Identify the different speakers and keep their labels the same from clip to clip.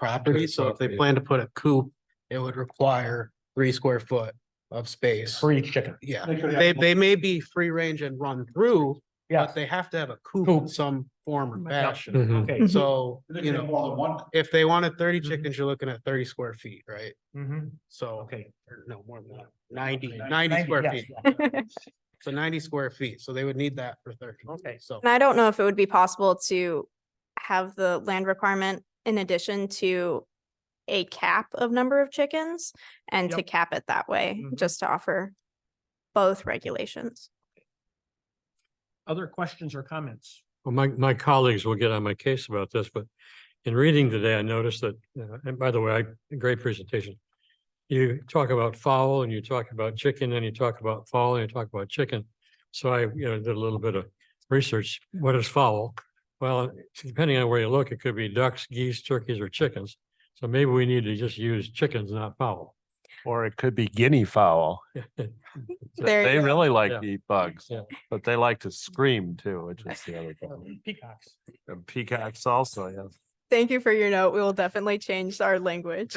Speaker 1: property, so if they
Speaker 2: property.
Speaker 1: plan to put a coop, it would require three square foot of space.
Speaker 3: for each chicken.
Speaker 1: Yeah,
Speaker 4: They could have
Speaker 1: they,
Speaker 4: mul-
Speaker 1: they may be free range and run through,
Speaker 3: Yeah,
Speaker 1: but they have to have a coop in
Speaker 3: Coop. Mm-hmm.
Speaker 1: some form or
Speaker 3: Yep.
Speaker 1: fashion.
Speaker 3: okay.
Speaker 1: So,
Speaker 4: They
Speaker 1: you
Speaker 4: could have
Speaker 1: know,
Speaker 4: more than one.
Speaker 1: if they wanted thirty
Speaker 3: Mhm.
Speaker 1: chickens, you're looking at thirty square feet, right?
Speaker 3: Mhm.
Speaker 1: So,
Speaker 3: Okay.
Speaker 1: or no, more than that, 90 90
Speaker 3: Ninety,
Speaker 1: square
Speaker 3: yes,
Speaker 1: feet.
Speaker 3: yeah.
Speaker 1: So ninety square feet, so they would need that for thirty.
Speaker 3: Okay.
Speaker 1: So.
Speaker 5: And I don't know if it would be possible to have the land requirement in addition to a cap of number of chickens and to
Speaker 3: Yep.
Speaker 5: cap it that way,
Speaker 3: Mhm.
Speaker 5: just to offer both regulations.
Speaker 3: Other questions or comments?
Speaker 2: Well, my, my colleagues will get on my case about this, but in reading today, I noticed that, uh, and by the way, I, great presentation. You talk about fowl and you talk about chicken and you talk about fowl and you talk about chicken. So I, you know, did a little bit of research. What is fowl? Well, depending on where you look, it could be ducks, geese, turkeys, or chickens. So maybe we need to just use chickens, not fowl.
Speaker 6: Or it could be guinea fowl. Th-
Speaker 5: There
Speaker 6: They
Speaker 5: you go.
Speaker 6: really like
Speaker 2: Yeah.
Speaker 6: to eat bugs,
Speaker 2: Yeah.
Speaker 6: but they like to scream too, which is the other problem.
Speaker 3: Peacocks.
Speaker 6: And peacocks also have.
Speaker 5: Thank you for your note. We will definitely change our language.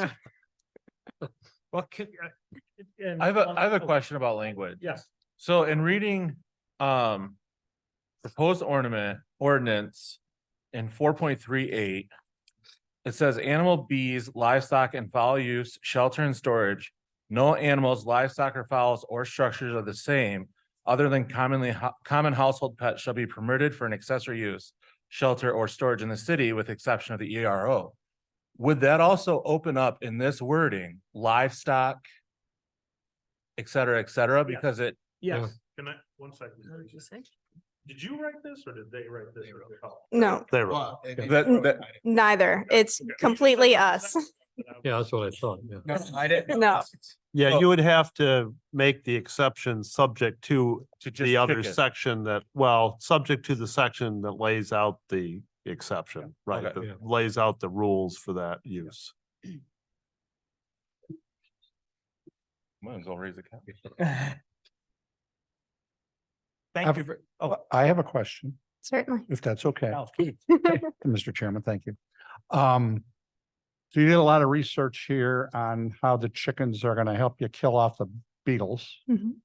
Speaker 3: Well, can, uh, it- and-
Speaker 7: I have a, I have a
Speaker 3: Oh,
Speaker 7: question about language.
Speaker 3: Yes,
Speaker 7: So in reading, um, proposed ornament ordinance in four point three eight, it says animal bees, livestock and fowl use, shelter and storage. No animals, livestock or fowls or structures are the same, other than commonly, hou- common household pets shall be permitted for an accessory use, shelter or storage in the city with exception of the ERO. Would that also open up in this wording livestock, et cetera, et cetera,
Speaker 8: Yes.
Speaker 7: because it
Speaker 3: yes.
Speaker 8: Can I, one second. please. Did you write this or did they write this?
Speaker 5: No,
Speaker 6: They were,
Speaker 1: Well, it-
Speaker 7: That-
Speaker 1: it-
Speaker 7: that-
Speaker 5: neither. It's completely us.
Speaker 2: Yeah, that's what I thought, yeah.
Speaker 1: No, I didn't.
Speaker 5: No.
Speaker 6: yeah,
Speaker 7: Oh.
Speaker 6: you would have to make the exception subject to
Speaker 7: to just
Speaker 6: the other
Speaker 7: chicken.
Speaker 6: section that, well, subject to the section that lays out the exception, right?
Speaker 7: Okay.
Speaker 2: Yeah.
Speaker 6: That lays out the rules for that use.
Speaker 7: Might as well raise a cow.
Speaker 3: Thank
Speaker 9: I've-
Speaker 3: you. for- Oh,
Speaker 9: I have a question,
Speaker 5: Certainly.
Speaker 9: if that's okay,
Speaker 3: Ralph.
Speaker 9: Mr. Chairman, thank you. Um, so you did a lot of research here on how the chickens are gonna help you kill off the beetles.
Speaker 5: Mhm.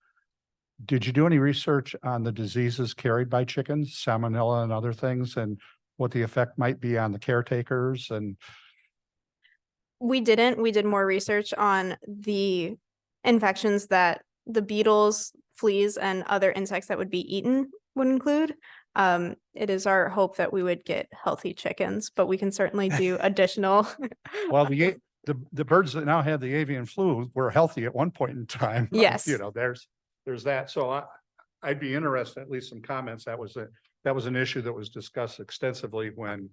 Speaker 9: Did you do any research on the diseases carried by chickens, salmonella and other things, and what the effect might be on the caretakers and
Speaker 5: We didn't. We did more research on the infections that the beetles, fleas, and other insects that would be eaten would include. Um, it is our hope that we would get healthy chickens, but we can certainly do additional.
Speaker 9: Well, the, a- the, the birds that now have the avian flu were healthy at one point in time. but,
Speaker 5: Yes.
Speaker 9: You know, there's, there's that. So I, I'd be interested, at least some comments. That was a, that was an issue that was discussed extensively when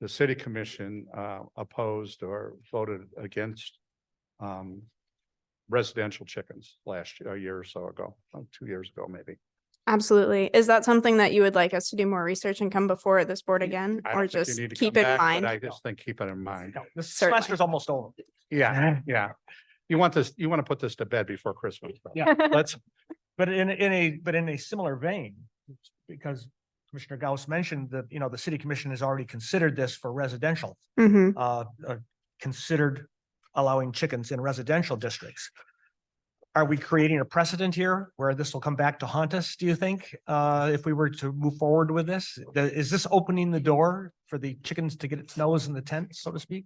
Speaker 9: the city commission, uh, opposed or voted against, um, residential chickens last, year- a year or so ago, uh, two years ago, maybe.
Speaker 5: Absolutely. Is that something that you would like us to do more research and come before this board again? Or
Speaker 9: I don't think you
Speaker 5: just
Speaker 9: need to
Speaker 5: keep
Speaker 9: come
Speaker 5: it in
Speaker 9: back, but I
Speaker 5: mind?
Speaker 9: just think keep it in mind.
Speaker 3: no, The
Speaker 5: Certainly.
Speaker 3: semester's almost over.
Speaker 9: Yeah, yeah. You want this, you want to put this to bed before Christmas. though.
Speaker 3: Yeah.
Speaker 9: Let's,
Speaker 3: But in, in a, but in a similar vein, because Commissioner Gauss mentioned that, you know, the city commission has already considered this for residential,
Speaker 5: Mhm.
Speaker 3: uh, uh, considered allowing chickens in residential districts. Are we creating a precedent here where this will come back to haunt us, do you think, uh, if we were to move forward with this? Th- Is this opening the door for the chickens to get its nose in the tent, so to speak?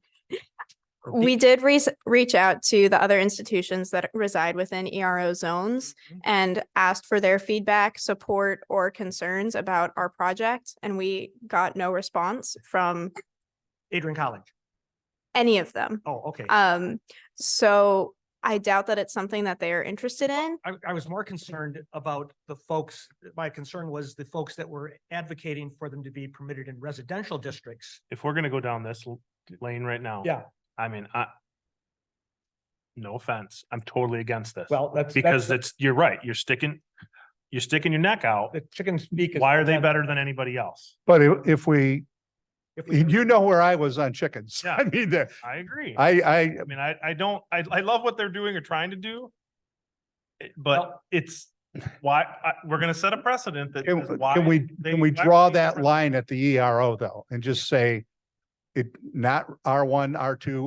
Speaker 3: Or be-
Speaker 5: We did reach, reach out to the other institutions that reside within ERO zones and asked for their feedback, support, or concerns about our project, and we got no response from
Speaker 3: Adrian College.
Speaker 5: any of them.
Speaker 3: Oh, okay.
Speaker 5: Um, so I doubt that it's something that they are interested in.
Speaker 3: I, I was more concerned about the folks, my concern was the folks that were advocating for them to be permitted in residential districts.
Speaker 8: If we're gonna go down this l- lane right now.
Speaker 3: Yeah.
Speaker 8: I mean, I. No offense, I'm totally against this.
Speaker 3: Well, that's.
Speaker 8: Because it's, you're right, you're sticking, you're sticking your neck out.
Speaker 3: The chickens speak. is-
Speaker 8: Why are they better than anybody else?
Speaker 9: but i- if we,
Speaker 3: If we-
Speaker 9: you know where I was on chickens.
Speaker 8: Yeah.
Speaker 9: I mean, the-
Speaker 8: I agree.
Speaker 9: I, I,
Speaker 8: I mean, I, I don't, I, I love what they're doing or trying to do. it- But it's, why, I, we're gonna set a precedent that.
Speaker 9: can
Speaker 8: is why
Speaker 9: can we,
Speaker 8: they-
Speaker 9: can we
Speaker 8: why
Speaker 9: draw
Speaker 8: they-
Speaker 9: that line at the ERO though and just say it, not R one, R two,